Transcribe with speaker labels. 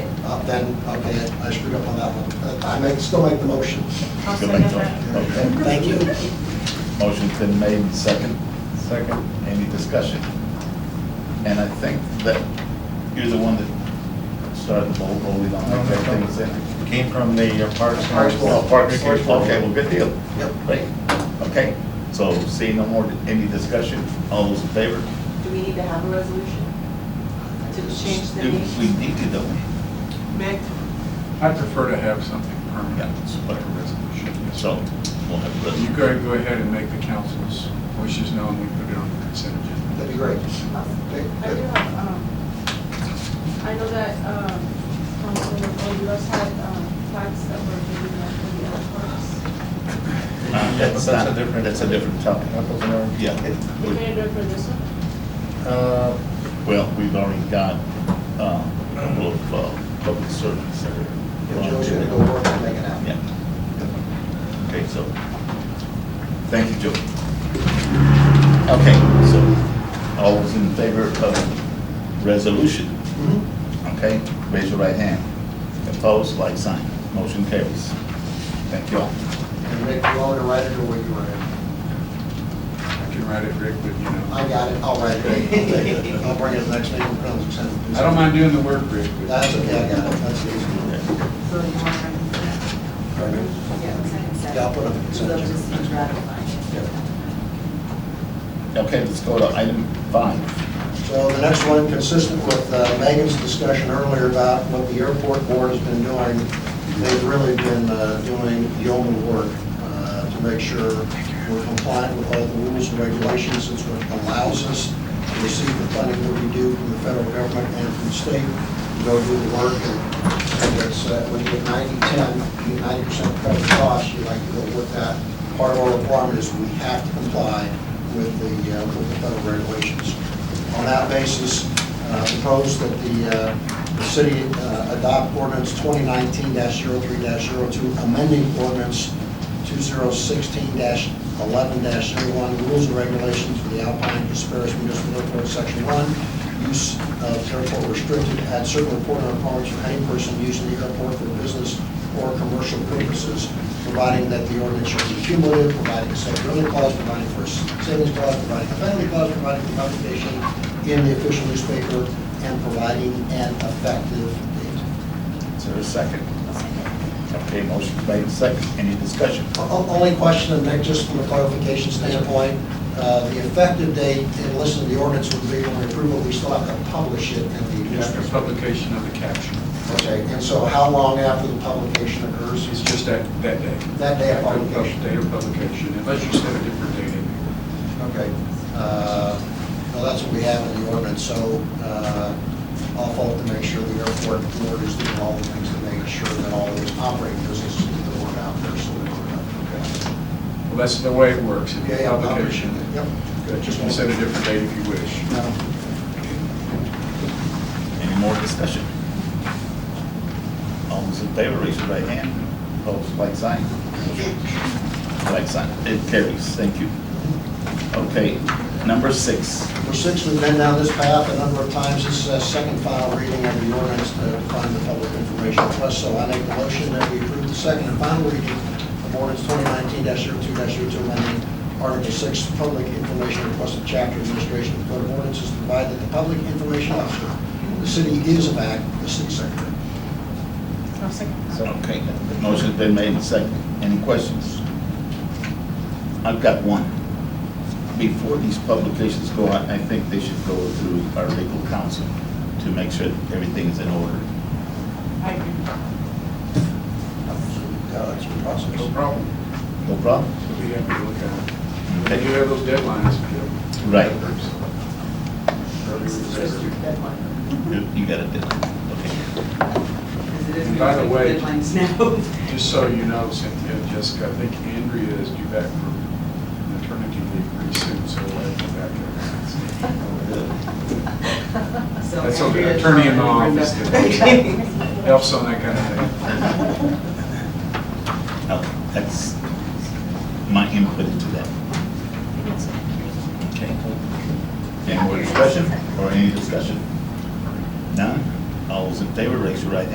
Speaker 1: Uh, then, okay, I screwed up on that one. But I make, still make the motion.
Speaker 2: I'll
Speaker 3: Go
Speaker 2: second
Speaker 3: back to-
Speaker 2: that.
Speaker 3: Okay.
Speaker 1: Thank you.
Speaker 3: Motion's been made, and second. Second. Any discussion? And I think that you're the one that started the ball rolling on that kind of thing.
Speaker 4: Came from the uh, Parks. and
Speaker 1: Parks Board.
Speaker 3: Oh, Parks,
Speaker 4: Parks Board.
Speaker 3: okay, well, good deal.
Speaker 1: Yep.
Speaker 3: Great, okay. So seeing no more, any discussion? All those in favor?
Speaker 2: Do we need to have a resolution to change the
Speaker 3: If We
Speaker 2: name?
Speaker 3: need to, don't we?
Speaker 2: Meg,
Speaker 5: I prefer to have something permanent,
Speaker 3: Yeah.
Speaker 5: like a resolution.
Speaker 3: So we'll have a
Speaker 5: You
Speaker 3: resolution.
Speaker 5: go, go ahead and make the council's wishes known, we put it on the consent agenda.
Speaker 1: That'd be great.
Speaker 2: I
Speaker 1: Okay,
Speaker 2: do
Speaker 1: good.
Speaker 2: have, um, I know that, um, Councilor Odeos had, um, flags that were given out for the airports.
Speaker 3: Uh, That's
Speaker 4: That's
Speaker 3: not,
Speaker 4: a different-
Speaker 3: that's a different topic.
Speaker 4: Apples and oranges.
Speaker 3: Yeah. it-
Speaker 2: We can do it for this one?
Speaker 4: Uh,
Speaker 3: Well, we've already got uh, a couple of uh, public servants that are.
Speaker 1: If Joe's gonna go work and make it happen.
Speaker 3: Yeah. Okay, so, thank you, Joe. Okay, so, all those in favor of resolution,
Speaker 1: Mhm.
Speaker 3: okay? Raise your right hand. Opposed, like sign. Motion carries. Thank you all.
Speaker 1: And Rick, you want me to write it or where you write it?
Speaker 5: I can write it, Rick, but you know,
Speaker 1: I got it, I'll write it. I'll bring it the next meeting, when it comes, send it.
Speaker 5: I don't mind doing the work, Rick, but.
Speaker 1: That's okay, I got it, that's
Speaker 6: So
Speaker 1: easy.
Speaker 6: you want to remove that? Yeah, okay.
Speaker 1: Yeah, I'll put it on the
Speaker 6: So
Speaker 1: consent
Speaker 6: they'll
Speaker 1: agenda.
Speaker 6: just be ratified.
Speaker 3: Okay, let's go to item five.
Speaker 1: So the next one, consistent with uh, Megan's discussion earlier about what the airport board has been doing, they've really been uh, doing yeoman work uh, to make sure we're compliant with all the rules and regulations, since what allows us to receive the funding that we do from the federal government and from the state, to go do the work, and and it's, uh, when you get 90, 10, you get 90% covered costs, you like to go with that. Part of our requirement is we have to comply with the, uh, with the federal regulations. On that basis, uh, propose that the, uh, the city uh, adopt ordinance 2019-03-02, amending ordinance 2016-11-01, rules and regulations for the Alpine Dispersed Municipal Airport, Section 1, use of airport restricted, add certain reporting requirements for any person using the airport for business or commercial purposes, providing that the ordinance shall be cumulative, providing a severability clause, providing for a savings clause, providing a penalty clause, providing for publication in the official newspaper, and providing an effective date.
Speaker 3: Is there a second? Okay, motion made, second. Any discussion?
Speaker 1: O- o- Only question, and Nick, just from a clarification standpoint, uh, the effective date, and listen, the ordinance would be when we approve it, we still have to publish it in the
Speaker 5: After
Speaker 1: newspaper.
Speaker 5: publication of the caption,
Speaker 1: Okay, and so how long after the publication occurs?
Speaker 5: it's just that, that day.
Speaker 1: That day of
Speaker 5: After the pub-
Speaker 1: publication.
Speaker 5: Date of publication, unless you set a different date in there.
Speaker 1: Okay. Uh, Well, that's what we have in the ordinance, so uh, I'll fault to make sure the airport board is doing all the things to make sure that all those operating businesses get the word out there, so that we're not.
Speaker 5: Well, that's the way it works, if
Speaker 1: Yeah,
Speaker 5: you
Speaker 1: yeah, I'm-
Speaker 5: publication.
Speaker 1: Yep.
Speaker 5: Good, just set a different date if you wish.
Speaker 1: No.
Speaker 3: Any more discussion? All those in favor, raise your right hand. Opposed, like sign. Like sign. It carries. Thank you. Okay, number six.
Speaker 1: Number six, we've been down this path a number of times. This is a second final reading of the ordinance to fund the public information request. So I make the motion that we approve the second and final reading of ordinance 2019-02-02, amending Article 6, Public Information Request of Chapter Administration of the Code of Ordinances, to provide that the public information officer, of the city is in fact the city secretary.
Speaker 2: I'll second that.
Speaker 3: Okay, the motion's been made and second. Any questions? I've got one. Before these publications go out, I think they should go through our legal counsel to make sure that everything is in order.
Speaker 2: I agree.
Speaker 1: Uh, It's a
Speaker 5: No
Speaker 1: process.
Speaker 5: problem.
Speaker 3: No problem?
Speaker 5: We'll be happy to look at it.
Speaker 3: Okay.
Speaker 5: And you have those deadlines, Joe.
Speaker 3: Right.
Speaker 6: It's just your deadline.
Speaker 3: You you got it, okay.
Speaker 6: Because it is
Speaker 5: And by the way-
Speaker 6: Deadlines now.
Speaker 5: Just so you know, Cynthia, and Jessica, I think Andrea is due back from maternity leave pretty soon, so we'll have you back.
Speaker 6: So
Speaker 5: That's okay,
Speaker 6: Andrea's
Speaker 5: attorney in the
Speaker 6: already
Speaker 5: office
Speaker 6: wrote
Speaker 5: did.
Speaker 6: that.
Speaker 5: there. Helps on that kind of thing.
Speaker 3: Oh, That's my input into that. Okay. Any more discussion or any discussion? None? All those in favor, raise your right hand.